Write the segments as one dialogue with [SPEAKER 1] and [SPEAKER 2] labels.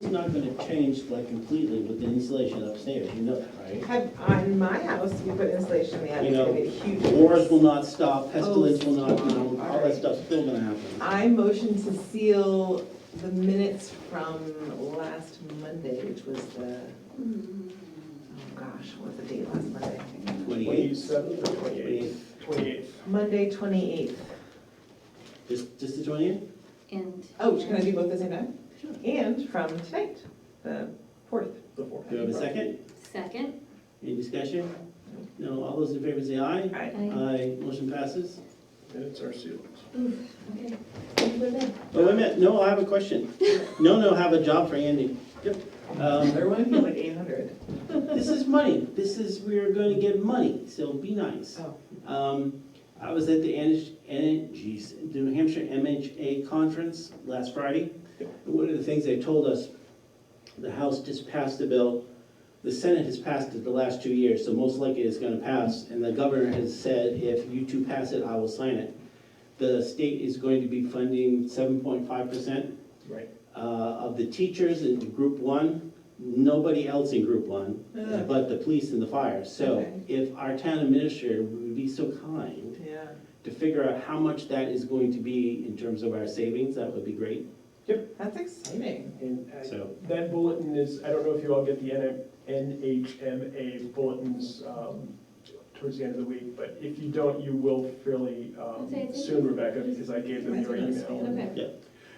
[SPEAKER 1] It's not gonna change like completely with the insulation upstairs, you know that, right?
[SPEAKER 2] Have, on my house, we put insulation, yeah,
[SPEAKER 1] You
[SPEAKER 2] it's
[SPEAKER 1] know,
[SPEAKER 2] gonna be a huge.
[SPEAKER 1] Wars will not stop, pestilence will not, you know, all that
[SPEAKER 2] Alright.
[SPEAKER 1] stuff's still gonna happen.
[SPEAKER 2] I motion to seal the minutes from last Monday, which was the, oh gosh, what was the date last Monday?
[SPEAKER 1] Twenty-eighth,
[SPEAKER 3] Twenty-seventh or
[SPEAKER 1] twenty-eighth,
[SPEAKER 3] twenty-eighth? Twenty-eighth.
[SPEAKER 2] Monday, twenty-eighth.
[SPEAKER 1] this, this the twentieth?
[SPEAKER 4] And.
[SPEAKER 2] Oh, can I do both at the same time?
[SPEAKER 1] Sure.
[SPEAKER 2] And from tonight, the fourth.
[SPEAKER 3] The fourth.
[SPEAKER 1] Do you have a second?
[SPEAKER 4] Second.
[SPEAKER 1] Any discussion? No, all those in favor say aye.
[SPEAKER 2] Aye.
[SPEAKER 4] I-
[SPEAKER 1] Aye, motion passes.
[SPEAKER 3] Minutes are sealed.
[SPEAKER 4] Okay. What about-
[SPEAKER 1] Oh, wait a minute, no, I have a question. No, no, have a job for Andy. Yep. Um,
[SPEAKER 2] There would be like eight hundred.
[SPEAKER 1] This is money, this is, we're gonna get money, so be nice.
[SPEAKER 2] Oh.
[SPEAKER 1] Um, I was at the N- N- geez, New Hampshire MHA conference last Friday. And One of the things they told us, the House just passed a bill, the Senate has passed it the last two years, so most likely it's gonna pass. And the governor has said, if you two pass it, I will sign it. The state is going to be funding seven point five percent
[SPEAKER 3] Right.
[SPEAKER 1] uh, of the teachers in group one, nobody else in group one,
[SPEAKER 2] Ugh.
[SPEAKER 1] but the police and the fire. So
[SPEAKER 2] Okay.
[SPEAKER 1] if our town administrator would be so kind
[SPEAKER 2] Yeah.
[SPEAKER 1] to figure out how much that is going to be in terms of our savings, that would be great.
[SPEAKER 2] That's exciting.
[SPEAKER 3] And I-
[SPEAKER 1] So,
[SPEAKER 3] that bulletin is, I don't know if you all get the NM NHMA bulletins um, towards the end of the week, but if you don't, you will fairly um,
[SPEAKER 4] I'd say it's-
[SPEAKER 3] soon, Rebecca, because I gave them
[SPEAKER 2] Mine's
[SPEAKER 3] your
[SPEAKER 2] not
[SPEAKER 3] email.
[SPEAKER 2] spam.
[SPEAKER 4] Okay.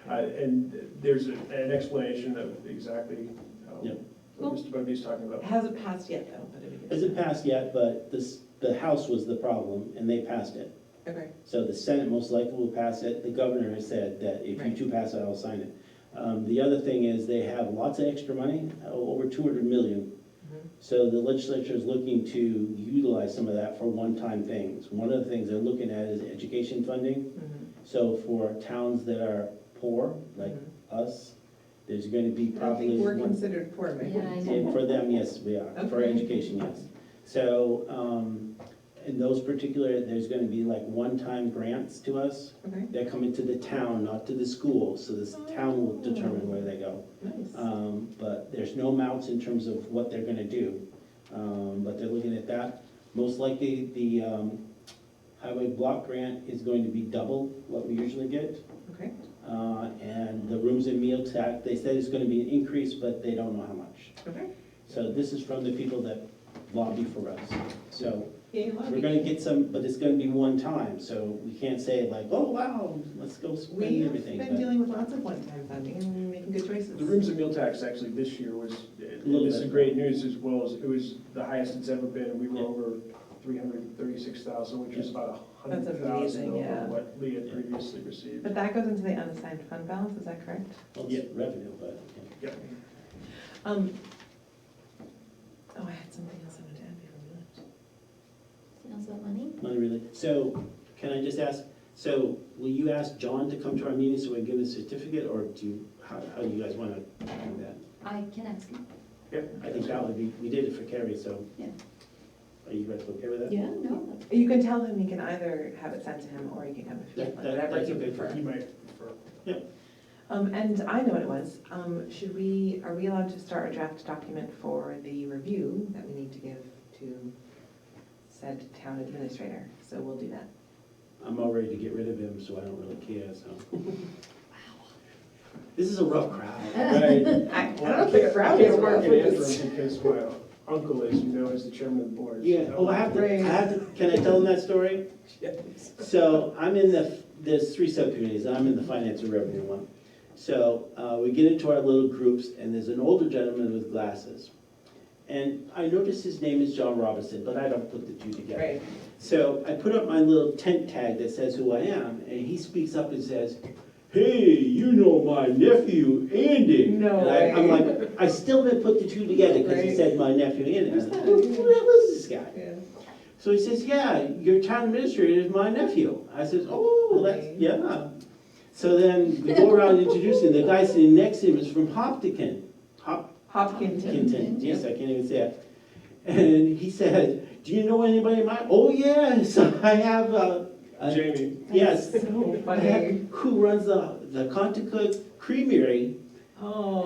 [SPEAKER 3] Uh, And there's a- an explanation of exactly um,
[SPEAKER 1] Yep.
[SPEAKER 3] what Mr. Bugby's talking about.
[SPEAKER 2] It hasn't passed yet though, but it'd be good.
[SPEAKER 1] hasn't passed yet, but this, the House was the problem, and they passed it.
[SPEAKER 2] Okay.
[SPEAKER 1] So the Senate most likely will pass it. The governor has said that if you
[SPEAKER 2] Right.
[SPEAKER 1] two pass it, I'll sign it. Um, The other thing is, they have lots of extra money, o- over 200 million.
[SPEAKER 2] Mhm.
[SPEAKER 1] So the legislature is looking to utilize some of that for one-time things. One of the things they're looking at is education funding.
[SPEAKER 2] Mhm.
[SPEAKER 1] So for towns that are poor, like
[SPEAKER 2] Mhm.
[SPEAKER 1] us, there's going to be
[SPEAKER 2] I don't
[SPEAKER 1] probably.
[SPEAKER 2] think we're
[SPEAKER 1] one-
[SPEAKER 2] considered poor, maybe.
[SPEAKER 4] Yeah, I know.
[SPEAKER 1] and for them, yes, we are, for
[SPEAKER 2] Okay.
[SPEAKER 1] education, yes. So, um, in those particular, there's gonna be like one-time grants to us.
[SPEAKER 2] Okay,
[SPEAKER 1] They're coming to the town, not to the school, so this town will determine where they go.
[SPEAKER 2] nice.
[SPEAKER 1] Um, but there's no amounts in terms of what they're gonna do, um, but they're looking at that. Most likely, the, um, highway block grant is going to be double what we usually get.
[SPEAKER 2] Okay,
[SPEAKER 1] Uh, and the rooms and meal tax, they said it's gonna be an increase, but they don't know how much.
[SPEAKER 2] okay.
[SPEAKER 1] So this is from the people that lobby for us. So
[SPEAKER 2] Yay,
[SPEAKER 1] we're
[SPEAKER 2] lobby.
[SPEAKER 1] gonna get some, but it's gonna be one time, so we can't say like, oh, wow, let's go
[SPEAKER 2] We
[SPEAKER 1] spend
[SPEAKER 2] have
[SPEAKER 1] everything.
[SPEAKER 2] been
[SPEAKER 1] but-
[SPEAKER 2] dealing with lots of one-time funding and making good choices.
[SPEAKER 3] The rooms and meal tax actually this year was,
[SPEAKER 1] little
[SPEAKER 3] this is
[SPEAKER 1] bit.
[SPEAKER 3] great news as well, as it was the highest it's ever been. We were
[SPEAKER 1] Yeah.
[SPEAKER 3] over three hundred and thirty-six thousand, which is about a
[SPEAKER 2] That's
[SPEAKER 3] hundred thousand
[SPEAKER 2] amazing,
[SPEAKER 3] over
[SPEAKER 2] yeah.
[SPEAKER 3] what Lee had
[SPEAKER 1] Yeah.
[SPEAKER 3] previously received.
[SPEAKER 2] But that goes into the unassigned fund balance, is that correct?
[SPEAKER 1] Well, it's revenue, but, yeah.
[SPEAKER 3] Yep.
[SPEAKER 2] Um, oh, I had something else I wanted to add before
[SPEAKER 4] Sounds about money?
[SPEAKER 1] not really. So can I just ask, so will you ask John to come to our meeting so we can give him a certificate, or do you, how, how do you guys wanna do that?
[SPEAKER 4] I can ask him.
[SPEAKER 3] Yep.
[SPEAKER 1] I think that would be, we did it for Carrie, so.
[SPEAKER 4] Yeah.
[SPEAKER 1] Are you guys okay
[SPEAKER 2] uh,
[SPEAKER 1] with that?
[SPEAKER 4] Yeah, no.
[SPEAKER 2] we left. You can tell him, you can either have it sent to him, or you can come if you
[SPEAKER 1] That-
[SPEAKER 2] want,
[SPEAKER 1] that-
[SPEAKER 2] whatever
[SPEAKER 1] that's
[SPEAKER 2] you
[SPEAKER 1] okay for
[SPEAKER 2] prefer.
[SPEAKER 3] He might prefer.
[SPEAKER 2] Um, and I know what it was, um, should we, are we allowed to start a draft document for the review that we need to give to said town administrator? So we'll do that.
[SPEAKER 1] I'm all ready to get rid of him, so I don't really care, so. This is a rough crowd.
[SPEAKER 3] Right.
[SPEAKER 2] I, I
[SPEAKER 3] Well,
[SPEAKER 2] don't think Brad
[SPEAKER 3] can't
[SPEAKER 2] is
[SPEAKER 3] work
[SPEAKER 2] worth
[SPEAKER 3] in
[SPEAKER 2] it.
[SPEAKER 3] Antrim Because my uncle is, you know, is the chairman of the board.
[SPEAKER 1] Yeah,
[SPEAKER 3] so-
[SPEAKER 1] oh, I have to, I have to, can I tell them that story?
[SPEAKER 3] Yeah.
[SPEAKER 1] So I'm in the, there's three subcommittees, I'm in the finance and revenue one. So, uh, we get into our little groups, and there's an older gentleman with glasses. And I notice his name is John Robinson, but I don't put the two together.
[SPEAKER 2] Right,
[SPEAKER 1] So I put up my little tent tag that says who I am, and he speaks up and says, "Hey, you know my nephew Andy."
[SPEAKER 2] No
[SPEAKER 1] And I, I'm
[SPEAKER 2] way.
[SPEAKER 1] like, I still didn't put the two together because he
[SPEAKER 2] Right.
[SPEAKER 1] said my nephew Andy. I was
[SPEAKER 2] Who's
[SPEAKER 1] like,
[SPEAKER 2] that?
[SPEAKER 1] who, who the hell is this guy?
[SPEAKER 2] yeah.
[SPEAKER 1] So he says, "Yeah, your town administrator is my nephew." I says, "Oh, that's
[SPEAKER 2] Okay.
[SPEAKER 1] yeah." So then we go around introducing. The guy sitting next to him is from Hopkinton. Hop,
[SPEAKER 2] Hopkinton.
[SPEAKER 1] Clinton, yes, I can't even say it. And he said, do you know anybody in my, oh, yes, I have, uh, uh,
[SPEAKER 3] Jamie,
[SPEAKER 1] yes.
[SPEAKER 2] So
[SPEAKER 1] I
[SPEAKER 2] funny.
[SPEAKER 1] have- Who runs the, the Conticook Creamery
[SPEAKER 2] Oh.